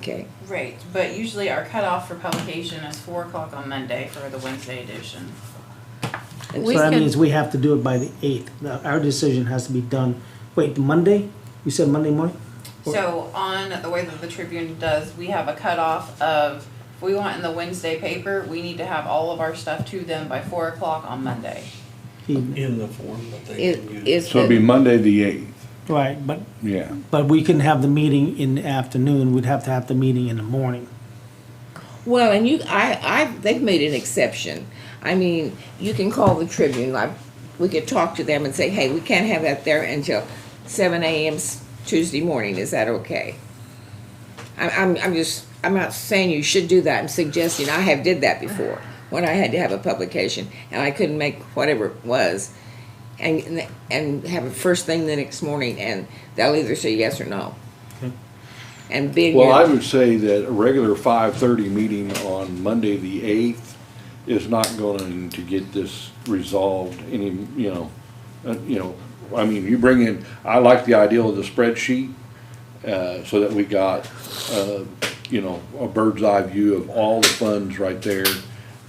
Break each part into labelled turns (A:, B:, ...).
A: okay.
B: Right, but usually our cutoff for publication is four o'clock on Monday for the Wednesday edition.
A: And
C: So
A: so-
C: that
D: could-
C: means we have to do it by the eighth. Our decision has to be done, wait, Monday? You said Monday morning? Or-
B: So on the way that the Tribune does, we have a cutoff of, if we want in the Wednesday paper, we need to have all of our stuff to them by four o'clock on Monday.
C: Evening.
E: in the form that they
A: It-
E: can use.
A: it's
F: So it'd be
A: the-
F: Monday the eighth,
C: Right, but,
F: yeah.
C: but we can have the meeting in the afternoon. We'd have to have the meeting in the morning.
A: Well, and you, I, I, they've made an exception. I mean, you can call the Tribune, like, we could talk to them and say, hey, we can't have that there until seven AM s- Tuesday morning, is that okay? I'm, I'm, I'm just, I'm not saying you should do that, I'm suggesting, I have did that before, when I had to have a publication, and I couldn't make whatever it was, and, and have it first thing the next morning, and they'll either say yes or no. And being.
F: Well,
A: your-
F: I would say that a regular five-thirty meeting on Monday the eighth is not going to get this resolved any, you know, uh, you know, I mean, you bring in, I like the idea of the spreadsheet, uh, so that we got, uh, you know, a bird's eye view of all the funds right there.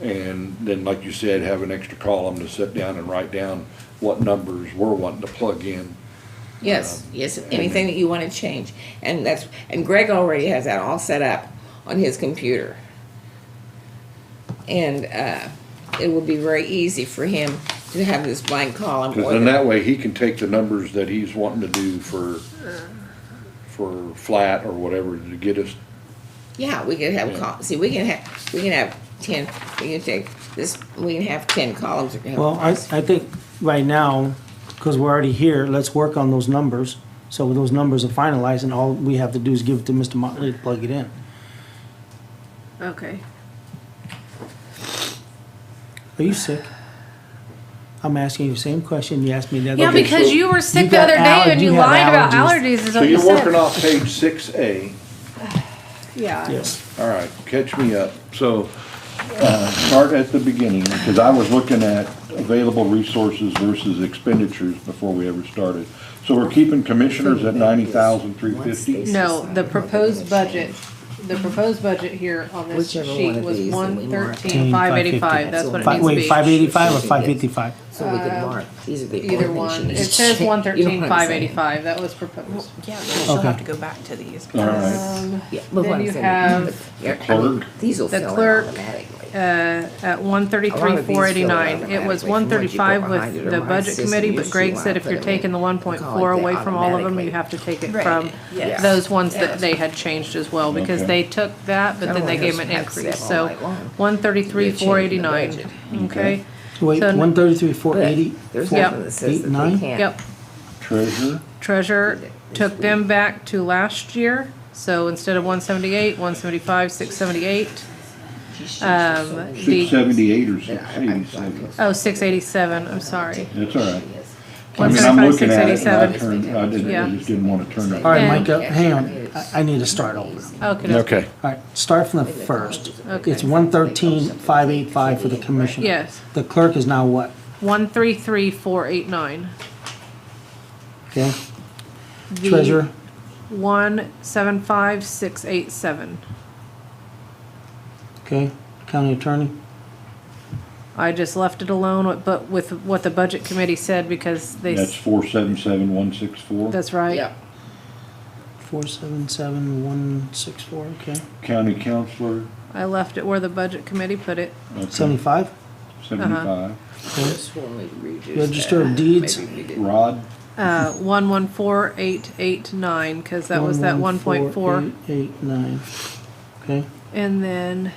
F: And then, like you said, have an extra column to sit down and write down what numbers we're wanting to plug in.
A: Yes, yes, anything that you want to change. And that's, and Greg already has that all set up on his computer. And uh, it will be very easy for him to have this blank column.
F: Because
A: or
F: then
A: the-
F: that way, he can take the numbers that he's wanting to do for, for flat or whatever to get us,
A: Yeah, we can have, col- see, we can have, we can have ten, we can take this, we can have ten columns. we can have-
C: Well, I, I think right now, because we're already here, let's work on those numbers. So when those numbers are finalized and all we have to do is give it to Mr. Motley to plug it in.
D: Okay.
C: Are you sick? I'm asking you the same question you asked me the other day.
D: Yeah,
F: Okay,
D: because
F: so
D: you were sick
C: you
D: the
C: got
D: other
C: aller-
D: day and
C: you
D: you
C: have
D: lied about
C: allergies.
D: allergies is
F: so
D: what you
F: you're
D: said.
F: working off page six A,
D: Yeah.
C: Yes.
F: all right, catch me up. So, uh, start at the beginning, because I was looking at available resources versus expenditures before we ever started. So we're keeping commissioners at ninety thousand, three fifty?
G: No, the proposed budget, the proposed budget here on this
A: Whichever one
G: sheet
A: of
G: was
A: these that we
G: one
A: marked.
G: thirteen, five eighty-five, that's what it
C: Fi-
G: needs to be.
C: Wait, five eighty-five or five fifty-five?
A: So we can mark, these are the only
G: Uh, Either
A: things she
G: one, it
A: needs to
G: says
A: check.
G: one
A: You know
G: thirteen,
A: what I'm
G: five
A: saying?
G: eighty-five, that was proposed.
B: Yeah, she'll
C: Okay. have to
B: go back to these.
F: All right,
G: Um,
A: Yeah, but
G: Then
A: what I'm
G: you
A: saying,
G: have
A: yeah, I mean,
F: clerk.
A: These will
G: the
A: fill in
G: clerk,
A: automatically.
G: uh, at one
A: A lot
G: thirty-three,
A: of these fill
G: four eighty-nine,
A: out
G: it
A: automatically
G: was
A: from what you
G: one
A: go
G: thirty-five
A: behind it
G: with
A: or
G: the
A: my
G: budget
A: system
G: committee, but
A: usually
G: Greg
A: when I
G: said if
A: put
G: you're
A: them in,
G: taking the one point four
A: call it
G: away
A: the
G: from all of them,
A: Oh, automatically.
G: you have to take it
B: Right,
G: from
B: yes.
G: those ones
B: Yeah.
G: that they had changed as well, because
F: Okay.
G: they took that, but then they gave them an increase, so one
A: You're
G: thirty-three,
A: changing the
G: four eighty-nine,
A: budget.
G: okay?
C: Wait,
G: So-
C: one thirty-three, four eighty?
A: But There's
G: Yep.
A: nothing that says
C: Eight,
A: that they
C: nine?
A: can't.
G: Yep,
F: treasurer,
G: treasurer took them back to last year, so instead of one seventy-eight, one seventy-five, six seventy-eight, um,
F: six
G: the,
F: seventy-eight or six eighty-seven,
G: oh, six eighty-seven, I'm sorry.
F: that's all right. I mean, I'm
G: 175,
F: looking at it, and I
G: 687.
F: turned, I didn't, I
G: Yeah.
F: just didn't wanna turn it.
C: All right,
G: And-
C: Micah, hang on, I, I need to start over.
G: Okay.
F: Okay.
C: All right, start from the first.
G: Okay.
C: It's one thirteen, five eight five for the commissioner.
G: Yes,
C: The clerk is now what?
G: one three three four eight nine.
C: Okay, treasurer,
G: One seven five six eight seven.
C: okay, county attorney,
G: I just left it alone, with- but with what the budget committee said because they,
F: That's
G: s-
F: four seven seven one six four.
G: that's right.
A: Yep.
C: four seven seven one six four, okay.
F: County counselor,
G: I left it where the budget committee put it.
F: okay,
C: Seventy-five,
F: seventy-five.
A: This one we reduced
C: register of
A: that.
C: deeds,
A: Maybe we did.
F: Rod,
G: Uh, one one four eight eight nine, cause that was that one point four.
C: 11489. okay.
G: And then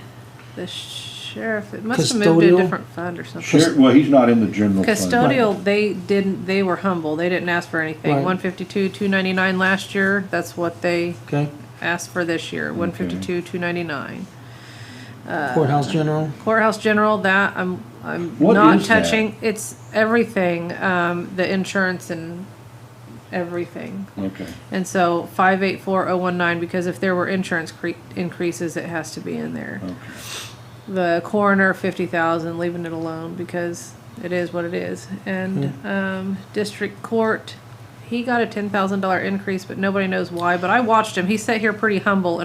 G: the sheriff, it must have moved to
C: Custodial?
G: a different fund or something.
F: Sher- well, he's not in the general fund.
G: Custodial, they didn't, they were humble. They didn't ask for anything.
C: Right.
G: One fifty-two, two ninety-nine last year. That's what they
C: Okay,
G: asked for this year, one fifty-two, two ninety-nine. Uh,
C: courthouse general,
G: Courthouse general, that I'm, I'm
F: What
G: not
F: is that?
G: touching. It's everything, um, the insurance and everything.
F: Okay,
G: And so five eight four oh one nine, because if there were insurance cre- increases, it has to be in there.
F: okay.
G: The coroner, fifty thousand, leaving it alone because it is what it is. And,
F: Hmm.
G: um, district court, he got a ten thousand dollar increase, but nobody knows why, but I watched him. He sat here pretty humble